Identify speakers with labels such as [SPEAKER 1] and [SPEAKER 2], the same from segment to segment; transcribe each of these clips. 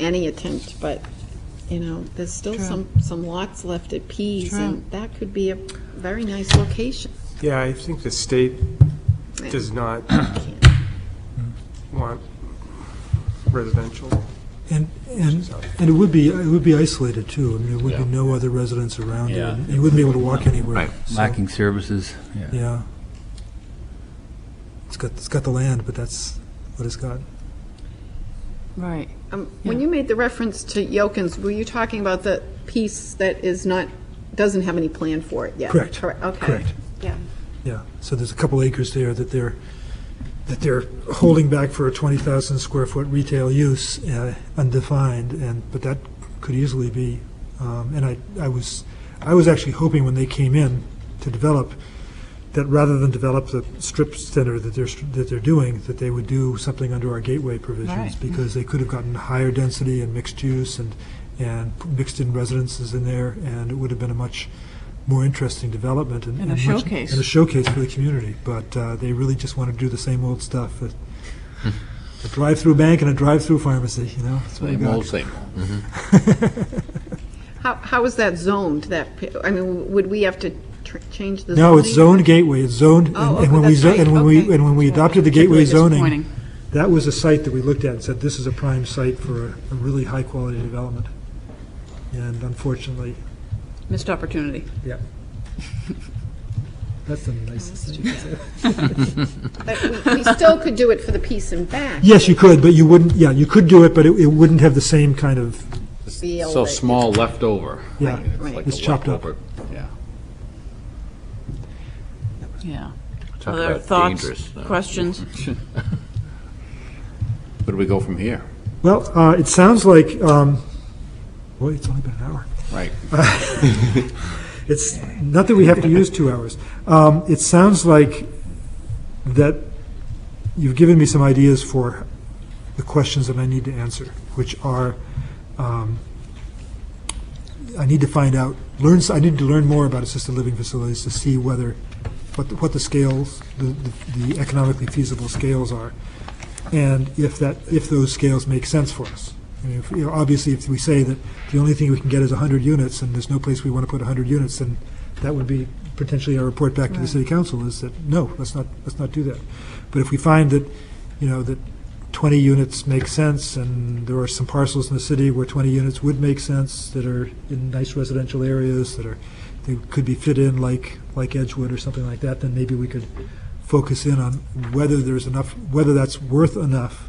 [SPEAKER 1] any attempt, but, you know, there's still
[SPEAKER 2] True.
[SPEAKER 1] some, some lots left at Pease,
[SPEAKER 2] True.
[SPEAKER 1] and that could be a very nice location.
[SPEAKER 3] Yeah, I think the state
[SPEAKER 1] Yeah.
[SPEAKER 3] does not want residential.
[SPEAKER 4] And, and, and it would be, it would be isolated too. I mean, there would be no other residents around it.
[SPEAKER 5] Yeah.
[SPEAKER 4] and You wouldn't be able to walk anywhere.
[SPEAKER 5] Right,
[SPEAKER 4] So,
[SPEAKER 5] lacking services, yeah.
[SPEAKER 4] Yeah. It's got, it's got the land, but that's what it's got.
[SPEAKER 2] Right.
[SPEAKER 1] Um, When you made the reference to Yelkins, were you talking about the piece that is not, doesn't have any plan for it yet?
[SPEAKER 4] Correct.
[SPEAKER 1] Okay.
[SPEAKER 4] Correct.
[SPEAKER 1] Yeah.
[SPEAKER 4] Yeah, so there's a couple acres there that they're, that they're holding back for a 20,000 square foot retail use, uh, undefined, and, but that could easily be, um, and I, I was, I was actually hoping when they came in to develop, that rather than develop the strip center that they're, that they're doing, that they would do something under our gateway provisions,
[SPEAKER 2] Right.
[SPEAKER 4] because they could have gotten higher density and mixed use and, and mixed-in residences in there, and it would have been a much more interesting development and
[SPEAKER 2] And a
[SPEAKER 4] much-
[SPEAKER 2] showcase.
[SPEAKER 4] And a showcase for the community, but uh, they really just want to do the same old stuff. A a drive-through bank and a drive-through pharmacy, you know? that's what we
[SPEAKER 6] Same
[SPEAKER 4] got.
[SPEAKER 6] old, same old.
[SPEAKER 1] How, how is that zoned, that, pi- I mean, would we have to tr- change the zoning?
[SPEAKER 4] No, it's zoned gateway, it's zoned, and
[SPEAKER 1] Oh,
[SPEAKER 4] and when
[SPEAKER 1] okay,
[SPEAKER 4] we,
[SPEAKER 1] that's
[SPEAKER 4] zo-
[SPEAKER 1] right,
[SPEAKER 4] and when we,
[SPEAKER 1] okay.
[SPEAKER 4] and when we adopted the gateway zoning,
[SPEAKER 2] Disappointing.
[SPEAKER 4] that was a site that we looked at and said, this is a prime site for a a really high-quality development. And unfortunately,
[SPEAKER 2] Missed opportunity.
[SPEAKER 4] yeah. That's the nicest thing to say.
[SPEAKER 1] But we- We still could do it for the piece in back.
[SPEAKER 4] Yes, you could, but you wouldn't, yeah, you could do it, but it it wouldn't have the same kind of,
[SPEAKER 1] Feel
[SPEAKER 6] So
[SPEAKER 1] that-
[SPEAKER 6] small leftover.
[SPEAKER 4] Yeah,
[SPEAKER 6] I mean, it's
[SPEAKER 1] right.
[SPEAKER 6] like
[SPEAKER 4] It's
[SPEAKER 6] a
[SPEAKER 4] chopped up.
[SPEAKER 6] leftover- Yeah.
[SPEAKER 2] Yeah.
[SPEAKER 6] Talk
[SPEAKER 2] Other
[SPEAKER 6] about dangerous,
[SPEAKER 2] thoughts,
[SPEAKER 6] though. Mm-hmm.
[SPEAKER 2] questions?
[SPEAKER 6] Where do we go from here?
[SPEAKER 4] well, uh, it sounds like, um, boy, it's only been an hour.
[SPEAKER 6] Right.
[SPEAKER 4] It's, not that we have to use two hours. Um, It sounds like that you've given me some ideas for the questions that I need to answer, which are, um, I need to find out, learn, s- I need to learn more about assisted living facilities to see whether, what, the- what the scales, the- the the economically feasible scales are, and if that, if those scales make sense for us. I mean, if, you know, obviously, if we say that the only thing we can get is 100 units, and there's no place we want to put 100 units, then that would be potentially our report back to the city council, is that, no, let's not, let's not do that. But if we find that, you know, that 20 units make sense, and there are some parcels in the city where 20 units would make sense, that are in nice residential areas, that are, they could be fit in like, like Edgewood or something like that, then maybe we could focus in on whether there's enough, whether that's worth enough,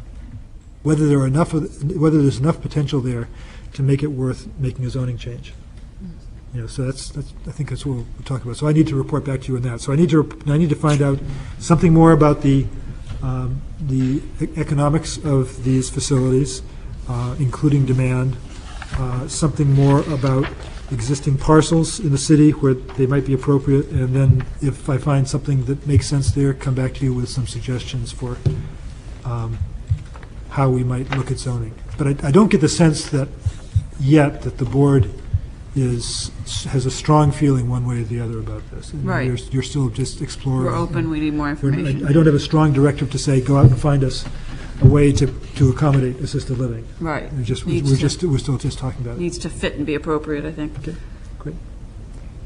[SPEAKER 4] whether there are enough, of- whether there's enough potential there to make it worth making a zoning change. You know, so that's, that's, I think that's what we'll talk about. So I need to report back to you on that. So I need to, rep- I need to find out something more about the, um, the e- economics of these facilities, uh, including demand, uh, something more about existing parcels in the city where they might be appropriate, and then if I find something that makes sense there, come back to you with some suggestions for um, how we might look at zoning. But I- I don't get the sense that, yet, that the board is, has a strong feeling one way or the other about this. And
[SPEAKER 2] Right.
[SPEAKER 4] You're you're still just exploring.
[SPEAKER 2] We're open, we need more
[SPEAKER 4] We're-
[SPEAKER 2] information.
[SPEAKER 4] I I don't have a strong directive to say, go out and find us a way to to accommodate assisted living.
[SPEAKER 2] Right.
[SPEAKER 4] We're just, we're
[SPEAKER 2] Needs to-
[SPEAKER 4] just, we're still just talking about it.
[SPEAKER 2] Needs to fit and be appropriate, I think.
[SPEAKER 4] Okay, great.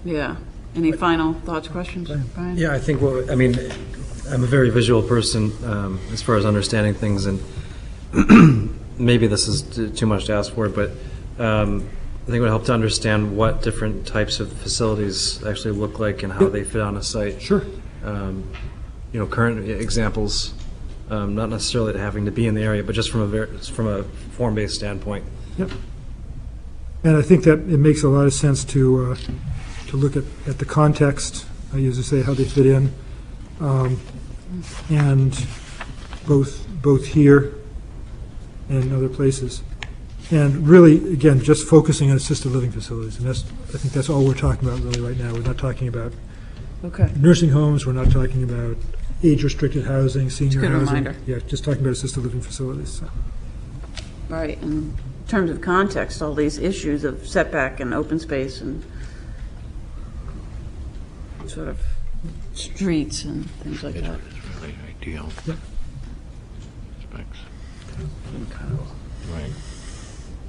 [SPEAKER 2] Yeah. Any final thoughts, questions? Brian?
[SPEAKER 7] Yeah, I think, what I mean, I'm a very visual person um, as far as understanding things, and maybe this is t- too much to ask for, but um, I think it would help to understand what different types of facilities actually look like and how they fit on a site.
[SPEAKER 4] Sure.
[SPEAKER 7] Um, You know, current examples, um, not necessarily having to be in the area, but just from a, ver- from a form-based standpoint.
[SPEAKER 4] And I think that it makes a lot of sense to, uh, to look at, at the context, I usually say how they fit in, um, and both, both here and other places. And really, again, just focusing on assisted living facilities, and that's, I think that's all we're talking about really right now. We're not talking about
[SPEAKER 2] Okay.
[SPEAKER 4] nursing homes, we're not talking about age-restricted housing, senior
[SPEAKER 2] good
[SPEAKER 4] housing.
[SPEAKER 2] reminder.
[SPEAKER 4] Yeah, just talking about assisted living facilities, so.
[SPEAKER 2] Right, in terms of context, all these issues of setback and open space and sort of streets and things like that.
[SPEAKER 6] Really ideal. Specs.
[SPEAKER 2] Okay.
[SPEAKER 6] Right.